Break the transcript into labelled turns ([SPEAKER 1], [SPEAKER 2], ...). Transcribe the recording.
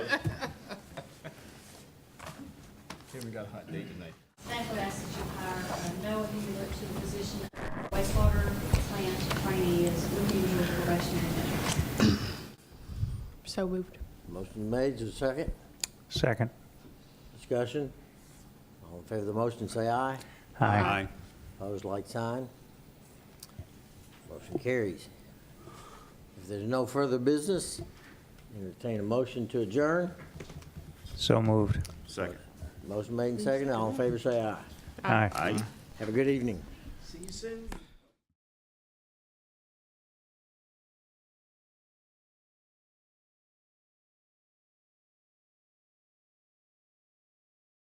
[SPEAKER 1] we got a hot date tonight.
[SPEAKER 2] Thankfully, I said you hire uh, Noah Hewlett to the position of wastewater plant trainee as looking for probationary measure.
[SPEAKER 3] So moved.
[SPEAKER 4] Motion made, is there a second?
[SPEAKER 5] Second.
[SPEAKER 4] Discussion? All in favor of the motion, say aye.
[SPEAKER 5] Aye.
[SPEAKER 4] Opposed, like sign. Motion carries. If there's no further business, entertain a motion to adjourn.
[SPEAKER 5] So moved.
[SPEAKER 6] Second.
[SPEAKER 4] Motion made and seconded, all in favor, say aye.
[SPEAKER 5] Aye.
[SPEAKER 6] Aye.
[SPEAKER 4] Have a good evening.
[SPEAKER 1] See you soon.